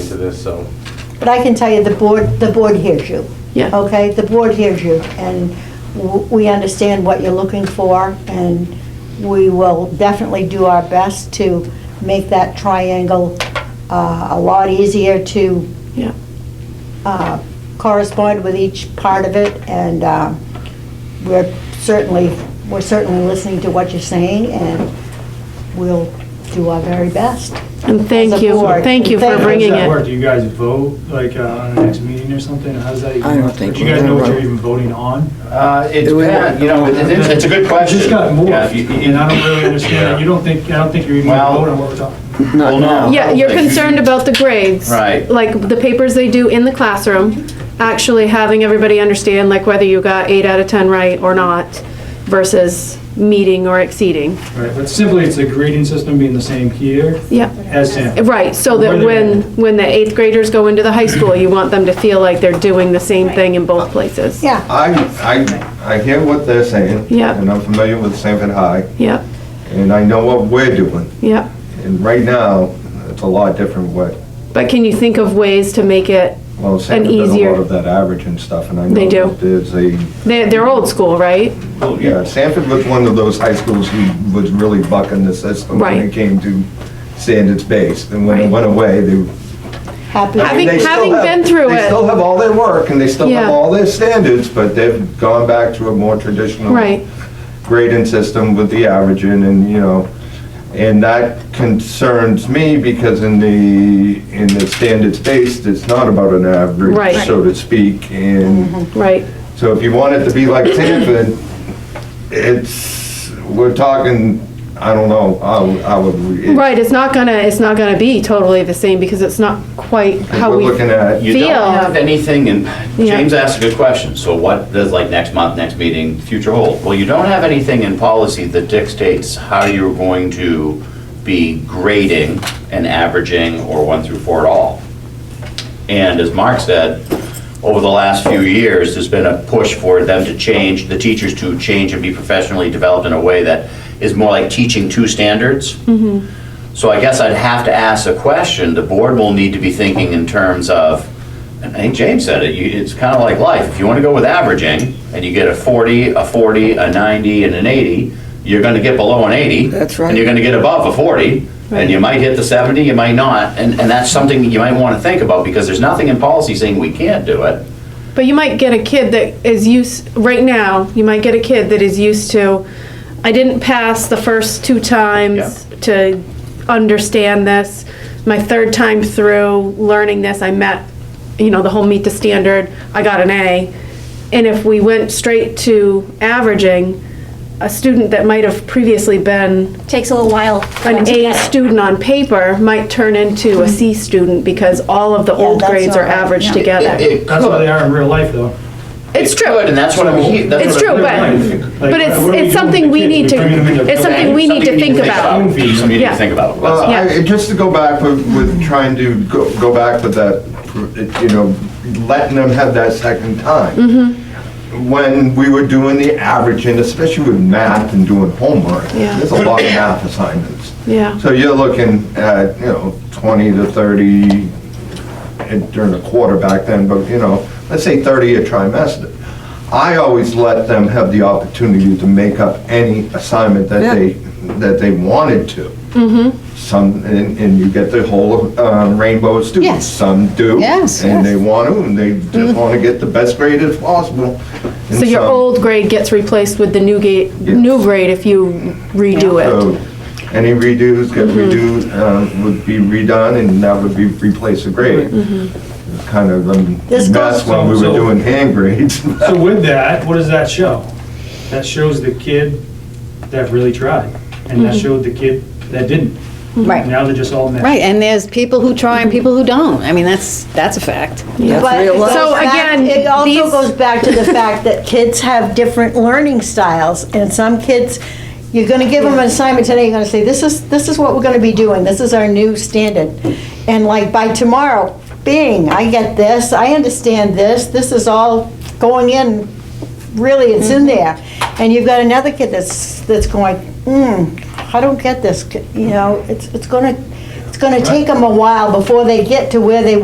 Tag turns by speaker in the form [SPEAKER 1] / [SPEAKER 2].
[SPEAKER 1] this, so.
[SPEAKER 2] But I can tell you, the board, the board hears you.
[SPEAKER 3] Yeah.
[SPEAKER 2] Okay, the board hears you, and w- we understand what you're looking for, and we will definitely do our best to make that triangle uh, a lot easier to
[SPEAKER 3] Yeah.
[SPEAKER 2] uh, correspond with each part of it, and uh, we're certainly, we're certainly listening to what you're saying, and we'll do our very best.
[SPEAKER 3] And thank
[SPEAKER 2] As a
[SPEAKER 3] you.
[SPEAKER 2] board.
[SPEAKER 3] Thank you for
[SPEAKER 2] Thank you.
[SPEAKER 3] bringing
[SPEAKER 4] How does
[SPEAKER 3] it.
[SPEAKER 4] that work? Do you guys vote, like, uh, on the next meeting or something? How does that even
[SPEAKER 5] I don't
[SPEAKER 4] work?
[SPEAKER 5] think
[SPEAKER 4] Do you
[SPEAKER 5] we're
[SPEAKER 4] guys
[SPEAKER 5] gonna
[SPEAKER 4] know what you're
[SPEAKER 5] vote.
[SPEAKER 4] even voting on?
[SPEAKER 1] Uh, it's,
[SPEAKER 5] Do we-
[SPEAKER 1] bad, you know, it's, it's a good question.
[SPEAKER 4] It just got more,
[SPEAKER 1] Yeah, you- you-
[SPEAKER 4] and I don't really understand. it. You don't think, I don't think you're even
[SPEAKER 1] Well-
[SPEAKER 4] voting on what we're talking.
[SPEAKER 1] Well, no.
[SPEAKER 3] Yeah, you're concerned about the grades.
[SPEAKER 1] Right.
[SPEAKER 3] Like the papers they do in the classroom, actually having everybody understand like whether you got eight out of 10 right or not versus meeting or exceeding.
[SPEAKER 4] Right, but simply it's the grading system being the same here
[SPEAKER 3] Yeah,
[SPEAKER 4] as Sanford.
[SPEAKER 3] right, so that when, when the eighth graders go into the high school, you want them to feel like they're doing the same thing in both places.
[SPEAKER 2] Yeah.
[SPEAKER 6] I, I, I hear what they're saying.
[SPEAKER 3] Yeah.
[SPEAKER 6] And I'm familiar with Sanford High,
[SPEAKER 3] Yep,
[SPEAKER 6] and I know what we're doing.
[SPEAKER 3] yep.
[SPEAKER 6] And right now, it's a lot different what,
[SPEAKER 3] But can you think of ways to make it,
[SPEAKER 6] well, Sanford does a
[SPEAKER 3] easier-
[SPEAKER 6] lot of that average and stuff, and I know.
[SPEAKER 3] They do.
[SPEAKER 6] that There's a,
[SPEAKER 3] they're, they're old school, right?
[SPEAKER 6] yeah, Sanford was one of those high schools who was really bucking the system when
[SPEAKER 3] Right.
[SPEAKER 6] it came to standards based. And when it
[SPEAKER 3] Right.
[SPEAKER 6] went away, they.
[SPEAKER 2] Happy.
[SPEAKER 6] I
[SPEAKER 3] Having-
[SPEAKER 6] mean, they still
[SPEAKER 3] having
[SPEAKER 6] have-
[SPEAKER 3] been through it.
[SPEAKER 6] They still have all their work, and they still
[SPEAKER 3] Yeah.
[SPEAKER 6] have all their standards, but they've gone back to a more traditional.
[SPEAKER 3] Right,
[SPEAKER 6] grading system with the averaging and, you know, and that concerns me because in the, in the standards based, it's not about an
[SPEAKER 3] Right.
[SPEAKER 6] average, so to speak. And
[SPEAKER 3] right,
[SPEAKER 6] so if you want it to be like Sanford, it's, we're talking, I don't know, I, I would. it-
[SPEAKER 3] right. It's not gonna, it's not gonna be totally the same because it's not quite how
[SPEAKER 6] We're
[SPEAKER 3] we.
[SPEAKER 6] looking at,
[SPEAKER 1] You
[SPEAKER 3] Feel.
[SPEAKER 1] don't have anything, and
[SPEAKER 3] Yeah.
[SPEAKER 1] James asked a good question, so what does like next month, next meeting, future hold? Well, you don't have anything in policy that dictates how you're going to be grading and averaging or one through four at all. And as Mark said, over the last few years, there's been a push for them to change, the teachers to change and be professionally developed in a way that is more like teaching two standards. So I guess I'd have to ask a question, the board will need to be thinking in terms of, and I think James said it, you- it's kind of like life. If you want to go with averaging, and you get a 40, a 40, a 90, and an 80, you're going to get below an 80.
[SPEAKER 5] That's right.
[SPEAKER 1] And you're going to get above a 40, and you might hit the 70, you might not, and, and that's something you might want to think about, because there's nothing in policy saying we can't do it.
[SPEAKER 3] But you might get a kid that is used, right now, you might get a kid that is used to, I didn't pass the first two times to understand this. My third time through learning this, I met, you know, the whole meet the standard, I got an A. And if we went straight to averaging, a student that might have previously been
[SPEAKER 7] Takes a little while. for them
[SPEAKER 3] an
[SPEAKER 7] to
[SPEAKER 3] A
[SPEAKER 7] get it.
[SPEAKER 3] student on paper might turn into a C student because all of the old
[SPEAKER 2] that's
[SPEAKER 3] grades are
[SPEAKER 2] not right.
[SPEAKER 3] averaged
[SPEAKER 7] Yeah.
[SPEAKER 1] It-
[SPEAKER 3] together.
[SPEAKER 1] it
[SPEAKER 4] That's
[SPEAKER 1] could.
[SPEAKER 4] how they are in real life, though.
[SPEAKER 3] It's true.
[SPEAKER 1] And that's what I'm, he- that's
[SPEAKER 3] It's
[SPEAKER 1] what I'm-
[SPEAKER 3] true, but, but it's, it's something we need to, it's something we need to think about.
[SPEAKER 1] Something you need to
[SPEAKER 3] Yeah.
[SPEAKER 1] think about.
[SPEAKER 6] Well,
[SPEAKER 3] Yeah.
[SPEAKER 6] Uh, I- just to go back with, with trying to go, go back with that, you know, letting them have that second time. When we were doing the averaging, especially with math and doing homework,
[SPEAKER 3] Yeah.
[SPEAKER 6] there's a lot of math assignments.
[SPEAKER 3] Yeah.
[SPEAKER 6] So you're looking at, you know, 20 to 30 and during the quarter back then, but you know, let's say 30 a trimester. I always let them have the opportunity to make up any assignment that they, that they wanted to.
[SPEAKER 2] Mm-hmm.
[SPEAKER 6] Some, and, and you get the whole um, rainbow of students.
[SPEAKER 2] Yes.
[SPEAKER 6] Some do.
[SPEAKER 2] Yes,
[SPEAKER 6] And they
[SPEAKER 2] yes. Mm-hmm.
[SPEAKER 6] want to, and they just want to get the best grade as possible. And
[SPEAKER 3] So your
[SPEAKER 6] some-
[SPEAKER 3] old grade gets replaced with the new gate, new grade if you redo
[SPEAKER 6] So any redos get
[SPEAKER 2] Mm-hmm.
[SPEAKER 6] redo, um, would be redone and that would be replace the grade. It's Kind of
[SPEAKER 2] Mm-hmm. This
[SPEAKER 6] a mess
[SPEAKER 2] goes-
[SPEAKER 6] when we
[SPEAKER 4] So-
[SPEAKER 6] were doing hand grades.
[SPEAKER 4] So with that, what does that show? That shows the kid that really tried, and
[SPEAKER 3] Mm-hmm.
[SPEAKER 4] that showed the kid that didn't.
[SPEAKER 8] Right,
[SPEAKER 4] Now they're just all mad.
[SPEAKER 8] right, and there's people who try and people who don't. I mean, that's, that's a fact.
[SPEAKER 2] But it goes
[SPEAKER 3] So
[SPEAKER 2] back-
[SPEAKER 3] again,
[SPEAKER 2] It
[SPEAKER 3] these-
[SPEAKER 2] also goes back to the fact that kids have different learning styles, and some kids, you're gonna give them an assignment today, you're gonna say, this is, this is what we're gonna be doing, this is our new standard. And like by tomorrow, bing, I get this, I understand this, this is all going in, really, it's in there. And you've got another kid that's, that's going, mm, I don't get this, you know, it's, it's gonna, it's gonna take them a while before they get to where they